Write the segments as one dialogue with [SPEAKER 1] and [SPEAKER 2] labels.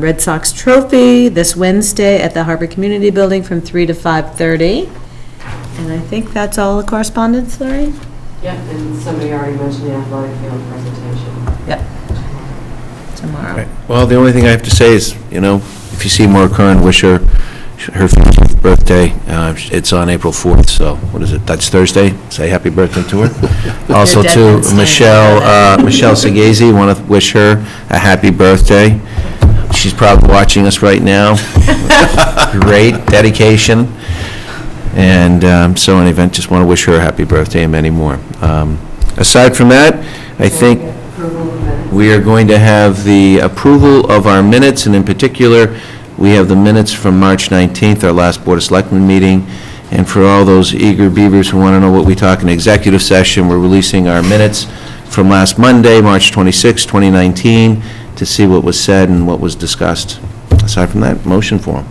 [SPEAKER 1] Red Sox Trophy this Wednesday at the Harbor Community Building from 3 to 5:30. And I think that's all the correspondence, Lorraine?
[SPEAKER 2] Yep, and somebody already mentioned the athletic field presentation.
[SPEAKER 1] Yep. Tomorrow.
[SPEAKER 3] Well, the only thing I have to say is, you know, if you see Maura Curran, wish her her 50th birthday. Uh, It's on April 4th, so what is it? That's Thursday. Say happy birthday to her. Also
[SPEAKER 1] Your
[SPEAKER 3] to
[SPEAKER 1] deadline's
[SPEAKER 3] Michelle,
[SPEAKER 1] Thursday.
[SPEAKER 3] uh, Michelle Segazy, want to wish her a happy birthday. She's probably watching us right now. Great dedication. And um, so in any event, just want to wish her a happy birthday and many more. Um, Aside from that, I think
[SPEAKER 2] Approval of minutes.
[SPEAKER 3] we are going to have the approval of our minutes, and in particular, we have the minutes from March 19th, our last Board of Selectmen meeting. And for all those eager beavers who want to know what we talk in executive session, we're releasing our minutes from last Monday, March 26, 2019, to see what was said and what was discussed. Aside from that, motion form.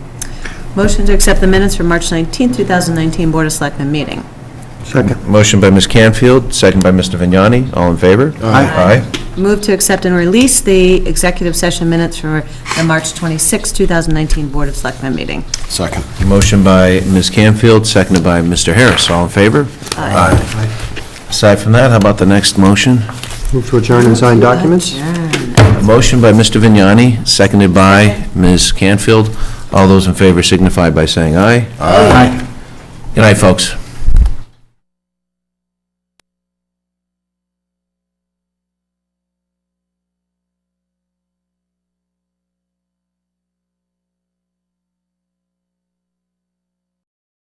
[SPEAKER 1] Motion to accept the minutes from March 19, 2019 Board of Selectmen meeting.
[SPEAKER 4] Second.
[SPEAKER 3] Motion by Ms. Canfield, second by Mr. Vignani. All in favor?
[SPEAKER 4] Aye.
[SPEAKER 3] Aye.
[SPEAKER 1] Move to accept and release the executive session minutes for the March 26, 2019 Board of Selectmen meeting.
[SPEAKER 4] Second.
[SPEAKER 3] Motion by Ms. Canfield, seconded by Mr. Harris. All in favor? Aye. Aside from that, how about the next motion?
[SPEAKER 4] Move to adjourn and sign documents?
[SPEAKER 3] A motion by Mr. Vignani, seconded by Ms. Canfield. All those in favor signify by saying aye. Aye. Good night, folks.